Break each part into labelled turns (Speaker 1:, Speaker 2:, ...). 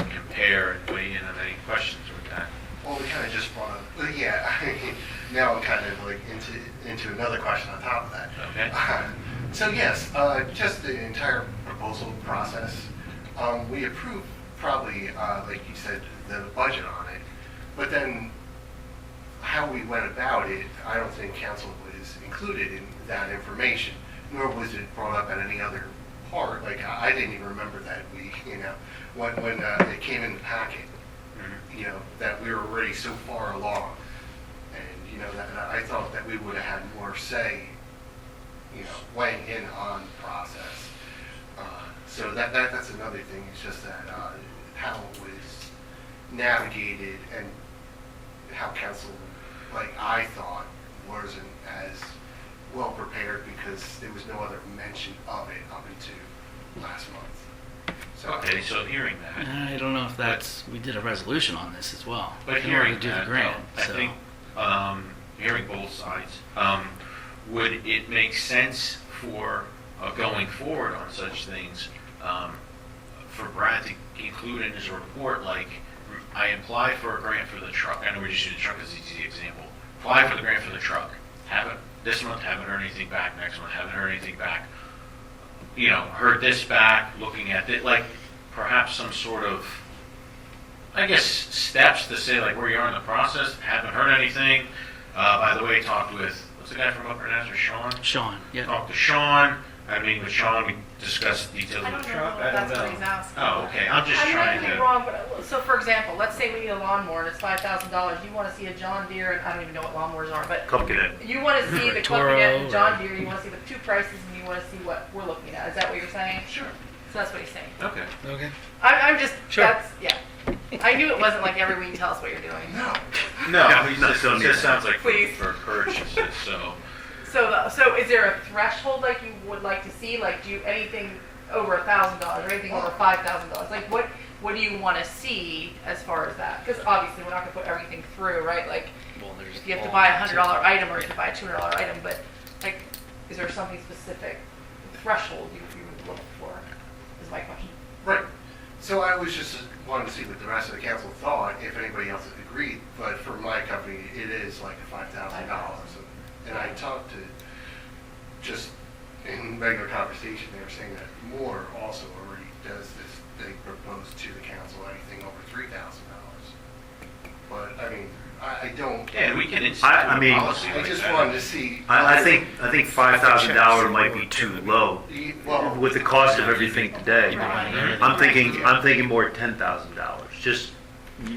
Speaker 1: So yes, uh, just the entire proposal process. Um, We approve probably, uh, like you said, the budget on it, but then how we went about it, I don't think council was included in that information, nor was it brought up at any other part. Like, I I didn't even remember that we, you know, when, when uh, it came in the packet, you know, that we were already so far along. And, you know, that, that I thought that we would have had more say, you know, weighing in on the process. Uh, So that, that, that's another thing, it's just that, uh, how it was navigated and how council, like I thought, wasn't as well prepared because there was no other mention of it up until last month. So,
Speaker 2: Okay, so hearing that,
Speaker 3: I don't know if that's, we did a resolution on this as well.
Speaker 2: but
Speaker 3: in order
Speaker 2: hearing
Speaker 3: to do the
Speaker 2: that,
Speaker 3: grant,
Speaker 2: though, I
Speaker 3: so-
Speaker 2: think, um, hearing both sides, um, would it make sense for, uh, going forward on such things, um, for Brad to include in his report, like, I applied for a grant for the truck, I know we're just using the truck as an easy example, apply for the grant for the truck, haven't, this month haven't heard anything back, next month haven't heard anything back, you know, heard this back, looking at it, like perhaps some sort of, I guess, steps to say like where you are in the process. Haven't heard anything. Uh, by the way, talked with what's the guy from Upper Nazareth, Sean.
Speaker 3: Sean, yeah.
Speaker 2: Talked to Sean. I mean, with Sean, we discussed details
Speaker 4: I
Speaker 2: of the
Speaker 4: don't
Speaker 2: truck.
Speaker 4: know.
Speaker 2: I don't
Speaker 4: That's what
Speaker 2: know.
Speaker 4: he's asking.
Speaker 2: Oh, okay. I'm just
Speaker 4: I
Speaker 2: trying
Speaker 4: might be
Speaker 2: to.
Speaker 4: wrong, but, uh, so for example, let's say we need a lawnmower and it's five thousand dollars, you wanna see a John Deere, and I don't even know what lawnmowers are, but
Speaker 2: Company.
Speaker 4: you wanna see
Speaker 3: Or
Speaker 4: the
Speaker 3: a
Speaker 4: company and
Speaker 3: Toro,
Speaker 4: John
Speaker 3: or-
Speaker 4: Deere, you wanna see the two prices, and you wanna see what we're looking at, is that what you're saying?
Speaker 2: Sure.
Speaker 4: So that's what he's saying.
Speaker 2: Okay.
Speaker 3: Okay.
Speaker 4: I'm, I'm just,
Speaker 3: Sure.
Speaker 4: that's, yeah. I knew it wasn't like every week, tell us what you're doing.
Speaker 1: no,
Speaker 2: No,
Speaker 5: Yeah,
Speaker 2: he's
Speaker 5: no,
Speaker 2: just,
Speaker 5: don't
Speaker 2: it
Speaker 5: need
Speaker 2: just
Speaker 5: that.
Speaker 2: sounds like for,
Speaker 4: Please.
Speaker 2: for purchases. So
Speaker 4: So, the- so is there a threshold like you would like to see? Like, do you, anything over a thousand dollars or anything over five thousand dollars? Like, what what do you want to see as far as that? Because obviously, we're not going to put everything through, right? Like,
Speaker 3: Well, there's
Speaker 4: if you have to
Speaker 3: all
Speaker 4: buy a
Speaker 3: that
Speaker 4: hundred
Speaker 3: too.
Speaker 4: dollar item or you have to buy a two hundred dollar item, but like, is there something specific threshold you, you would look for? Is my question.
Speaker 1: right. So I was just wanting to see what the rest of the council thought, if anybody else agreed, but for my company, it is like a five thousand dollars. And I talked to, just in regular conversation, they were saying that Moore also already does this, they proposed to the council anything over three thousand dollars. But, I mean, I, I don't,
Speaker 2: yeah, we can institute
Speaker 5: I- I mean,
Speaker 2: a policy
Speaker 1: I
Speaker 2: like
Speaker 1: just
Speaker 2: that.
Speaker 1: wanted to see.
Speaker 5: I, I think, I think five thousand dollar might be too low
Speaker 1: E- Well,
Speaker 5: with the cost of everything today.
Speaker 3: Right.
Speaker 5: I'm thinking, I'm thinking more ten thousand dollars. Just,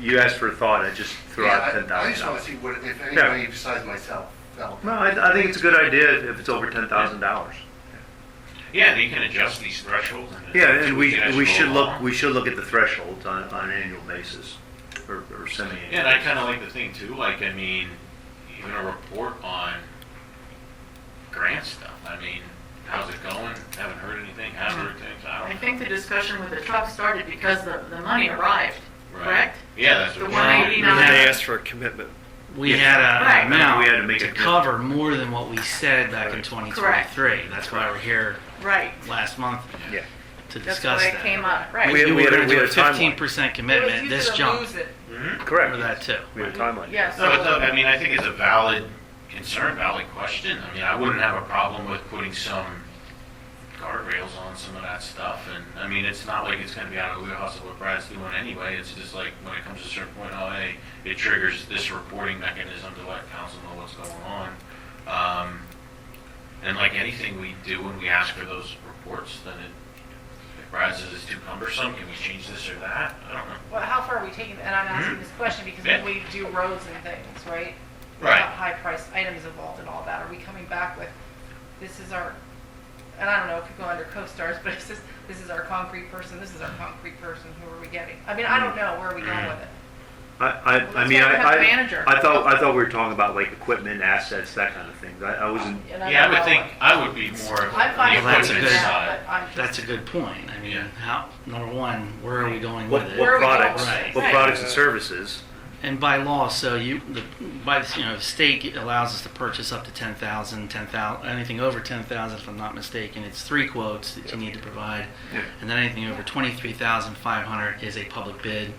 Speaker 5: you asked for a thought, I just threw
Speaker 1: yeah,
Speaker 5: out
Speaker 1: I
Speaker 5: ten
Speaker 1: I just want to
Speaker 5: thousand dollars.
Speaker 1: see what, if anybody besides myself felt.
Speaker 5: No, I, I think it's a good idea if it's over ten thousand dollars.
Speaker 2: Yeah, and you can adjust these thresholds. And
Speaker 5: Yeah, and we,
Speaker 2: tweak it as
Speaker 5: we
Speaker 2: you go
Speaker 5: should look,
Speaker 2: along.
Speaker 5: we should look at the thresholds on, on an annual basis or, or semi-annual.
Speaker 2: Yeah, and I kind of like the thing too. Like, I mean, even a report on grant stuff. I mean, how's it going? Haven't heard anything. Haven't heard things. I
Speaker 6: I
Speaker 2: don't.
Speaker 6: think the discussion with the truck started because the, the money arrived,
Speaker 2: Right.
Speaker 6: correct?
Speaker 2: Yeah, that's what.
Speaker 6: The
Speaker 2: we're doing.
Speaker 6: 189.
Speaker 3: They
Speaker 7: asked for a commitment.
Speaker 3: We had a-
Speaker 6: Right.
Speaker 3: an amount
Speaker 5: We had to make a
Speaker 3: to
Speaker 5: commit-
Speaker 3: cover more than what we said back in 2023. That's why we're here
Speaker 6: Right.
Speaker 3: last month
Speaker 7: Yeah.
Speaker 3: to
Speaker 6: That's
Speaker 3: discuss
Speaker 6: why it
Speaker 3: that.
Speaker 6: came up,
Speaker 3: We
Speaker 6: right.
Speaker 7: We-
Speaker 3: knew
Speaker 7: we
Speaker 3: we were
Speaker 7: had a-
Speaker 3: going to
Speaker 7: we
Speaker 3: do a
Speaker 7: had a timeline.
Speaker 3: 15%
Speaker 4: It
Speaker 3: commitment,
Speaker 4: was
Speaker 3: this
Speaker 4: use it or
Speaker 3: jump,
Speaker 4: lose it.
Speaker 2: Mhm.
Speaker 3: remember
Speaker 7: Correct.
Speaker 3: that too.
Speaker 7: We had a timeline.
Speaker 6: Yeah,
Speaker 2: No, it's a,
Speaker 6: so,
Speaker 2: I mean, I think it's a valid concern, valid question. I mean, I wouldn't have a problem with putting some guardrails on some of that stuff. And I mean, it's not like it's going to be out of the wheelhouse of what Brad's doing anyway. It's just like when it comes to a certain point, oh, hey, it triggers this reporting mechanism to let council know what's going on. Um, and like anything we do when we ask for those reports, then it, if Brad says it's too cumbersome, can we change this or that? I don't know.
Speaker 4: Well, how far are we taking? And I'm asking this question because
Speaker 2: Hmm? Yeah.
Speaker 4: when we do roads and things, right?
Speaker 2: Right.
Speaker 4: High priced items involved and all that. Are we coming back with, this is our, and I don't know if you go under co-stars, but it's just, this is our concrete person, this is our concrete person, who are we getting? I mean, I
Speaker 2: Hmm.
Speaker 4: don't know, where are we going with it?
Speaker 5: I, I,
Speaker 6: Well,
Speaker 5: I
Speaker 6: that's
Speaker 5: mean,
Speaker 6: why
Speaker 5: I,
Speaker 6: we have the
Speaker 5: I,
Speaker 6: manager.
Speaker 5: I thought, I thought we were talking about like equipment, assets, that kind of thing. I, I wasn't,
Speaker 4: And
Speaker 2: Hmm. Yeah, I
Speaker 4: don't
Speaker 2: would
Speaker 4: know.
Speaker 2: think, I would be more of
Speaker 4: I'm fine
Speaker 2: the
Speaker 4: with
Speaker 3: that's a
Speaker 2: equipment
Speaker 3: good-
Speaker 2: side.
Speaker 4: that, but I'm just.
Speaker 3: That's a good point. I mean,
Speaker 2: Yeah.
Speaker 3: how, number one, where are we going
Speaker 5: what,
Speaker 3: with it?
Speaker 4: Where
Speaker 5: what
Speaker 4: are we going?
Speaker 5: products,
Speaker 3: Right.
Speaker 5: what products and services.
Speaker 3: And by law, so you, the, by, the- you know, state allows us to purchase up to 10,000, 10,000, anything over 10,000, if I'm not mistaken, it's three quotes that you need to provide. And then anything over 23,500 is a public bid.